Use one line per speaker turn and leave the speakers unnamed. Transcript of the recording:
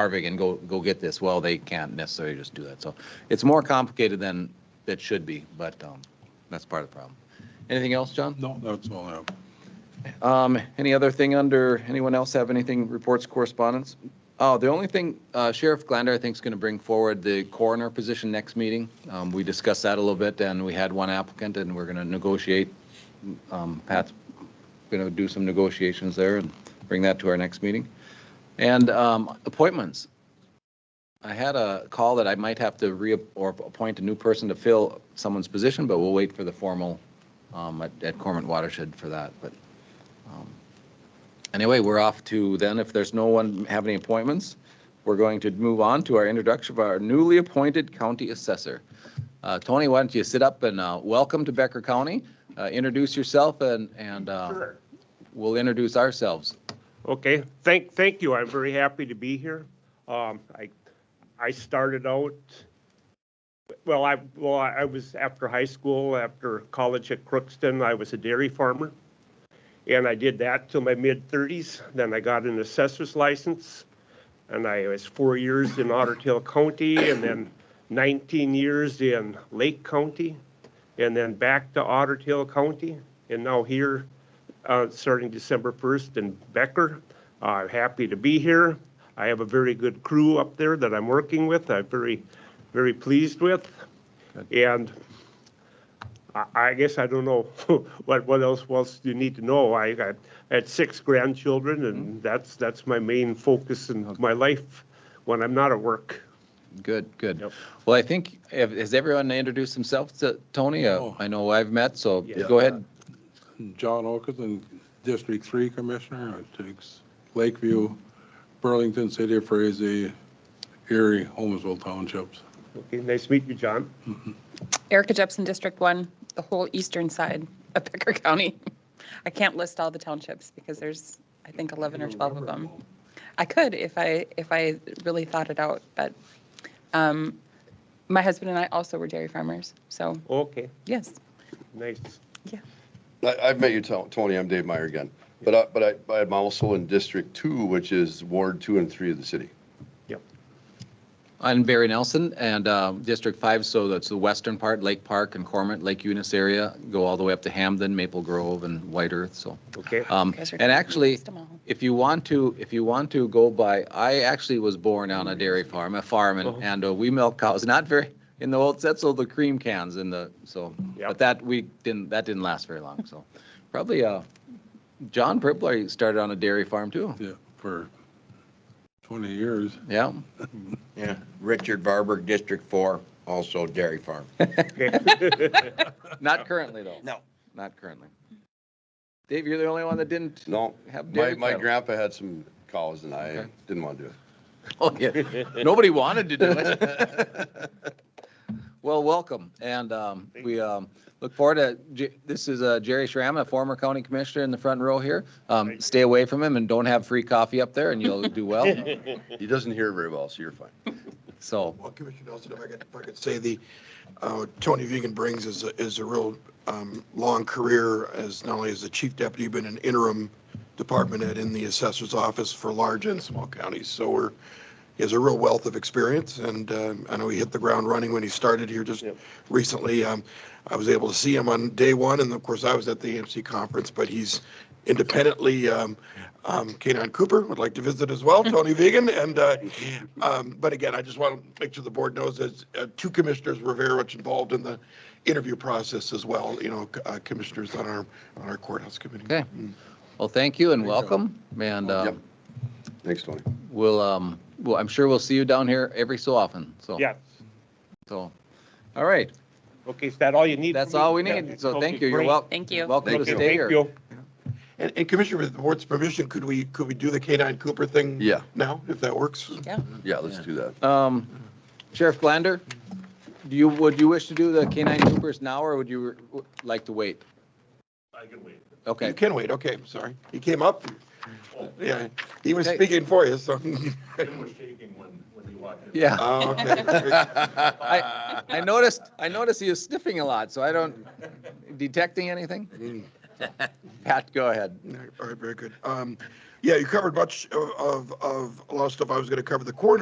Harvick and go, go get this. Well, they can't necessarily just do that. So it's more complicated than it should be, but um, that's part of the problem. Anything else, John?
No, that's all I have.
Um, Any other thing under, anyone else have anything, reports, correspondence? Oh, the only thing uh, Sheriff Glander, I think, is going to bring forward the coroner position next meeting. Um, We discussed that a little bit, and we had one applicant, and we're going to negotiate. Um, Pat's going to do some negotiations there and bring that to our next meeting. And um, appointments. I had a call that I might have to re, or appoint a new person to fill someone's position, but we'll wait for the formal um, at at Cormant Watershed for that, but Anyway, we're off to then, if there's no one have any appointments, we're going to move on to our introduction of our newly appointed county assessor. Uh, Tony, why don't you sit up and uh, welcome to Becker County? Uh, Introduce yourself and, and uh, we'll introduce ourselves.
Okay, thank, thank you. I'm very happy to be here. Um, I, I started out, well, I, well, I I was after high school, after college at Crookston, I was a dairy farmer. And I did that till my mid-thirties. Then I got an assessor's license. And I was four years in Otter Tail County and then nineteen years in Lake County. And then back to Otter Tail County and now here uh, starting December 1st in Becker. I'm happy to be here. I have a very good crew up there that I'm working with. I'm very, very pleased with. And I- I guess I don't know what, what else was you need to know. I got, I had six grandchildren
Mm-hmm.
and that's, that's my main focus in my life when I'm not at work.
Good, good.
Yep.
Well, I think, have- has everyone introduced themselves to Tony? Uh,
No.
I know I've met, so
Oh. Yeah.
go ahead.
John Oakerson, District Three Commissioner, it takes Lakeview, Burlington, City of Frazee, Erie, Holmesville Townships.
Okay, nice to meet you, John.
Erica Jepson, District 1, the whole eastern side of Becker County. I can't list all the townships because there's, I think, 11 or 12 of them. I could if I, if I really thought it out, but um, my husband and I also were dairy farmers, so
Okay,
yes,
nice.
yeah.
I, I've met you, Ton- Tony, I'm Dave Meyer again, but I, but I, but I'm also in District Two, which is Ward Two and Three of the city.
Yep.
I'm Barry Nelson and um, District 5, so that's the western part, Lake Park and Cormant, Lake Eunice area, go all the way up to Hamden, Maple Grove and White Earth, so.
Okay,
Um,
Guys are
And actually,
List 'em all.
if you want to, if you want to go by, I actually was born on a dairy farm, a farm, and,
Uh-huh.
and uh, we milk cows, not very, in the old Setzel, the cream cans in the, so. But
Yep.
that, we didn't, that didn't last very long, so. Probably, uh, John Pripler started on a dairy farm too.
Yeah, for 20 years.
Yeah,
Yeah, Richard Barber, District Four, also dairy farm.
okay.
not currently though.
No.
Not currently. Dave, you're the only one that didn't.
No,
Have
my,
dairy
my
cattle.
grandpa had some cows and I
Okay.
didn't want to do it.
Oh, yeah. Nobody wanted to do it. Well, welcome, and um, we um, look forward to, J- this is uh, Jerry Schramm, a former county commissioner in the front row here. Um,
Thank you.
Stay away from him and don't have free coffee up there, and you'll do well.
He doesn't hear very well, so you're fine.
So,
Well, Commissioner Nelson, if I could, if I could say the, uh, Tony Vegan brings is, a- is a real um, long career as not only as the chief deputy, but an interim department head in the assessor's office for large and small counties. So we're, he has a real wealth of experience and um, I know he hit the ground running when he started here just
Yep.
recently. Um, I was able to see him on day one and of course I was at the AMC conference, but he's independently, um, um, Kanon Cooper would like to visit as well, Tony Vegan. And, uh, um, but again, I just want to make sure the board knows that uh, two commissioners were very much involved in the interview process as well, you know, c- uh, commissioners on our, on our courthouse committee.
okay. Well, thank you and welcome, and uh,
Yep. Thanks, Tony.
we'll, um, well, I'm sure we'll see you down here every so often, so.
Yeah,
So, all right,
okay, is that all you need?
that's
from me?
all we
Yeah.
need, so
Okay,
thank you, you're
great.
welcome.
Thank you.
Welcome to
Okay,
stay
thank
here.
you.
And, and Commissioner, with the board's permission, could we, could we do the K-9 Cooper thing?
Yeah.
Now, if that works?
Yeah.
Yeah, let's do that.
Um, Sheriff Glander, do you, would you wish to do the canine troopers now, or would you uh, like to wait? I can
You
wait. Okay,
can wait, okay, I'm sorry. He came up. Yeah, he was
Okay.
speaking for you, so.
yeah.
Oh, okay.
I, I noticed, I noticed he was sniffing a lot, so I don't, detecting anything? Pat, go ahead.
All right, very good. Um, Yeah, you covered much of, of, of a lot of stuff I was going to cover. The coroner